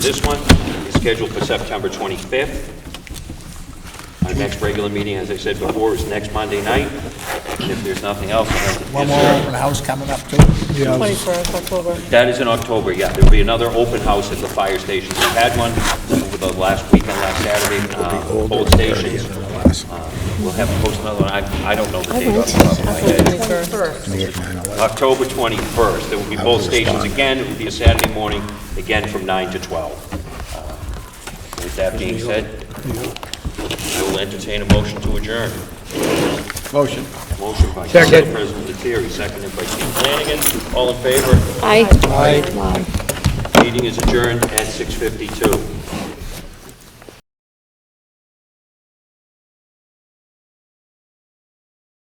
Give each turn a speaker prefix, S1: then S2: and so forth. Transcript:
S1: This one is scheduled for September 25th. Our next regular meeting, as I said before, is next Monday night. If there's nothing else, I'll
S2: One more
S1: entertain-
S2: open house coming up too.
S3: Yeah, I was-
S4: 21st October.
S1: That is in October, yeah. There'll be another open house at the fire station. We had one over the last weekend, last Saturday, uh, both stations. Uh, We'll have to post another one. I I don't know the date off the top of my head.
S4: 21st.
S1: October 21st. There will be both stations again. It will be a Saturday morning, again from 9 to 12. Uh, With that being said, I will entertain a motion to adjourn.
S2: Motion.
S1: Motion by Council President Lettieri, seconded by Chief Flanagan. All in favor?
S4: Aye.
S1: Meeting is adjourned at 6:52.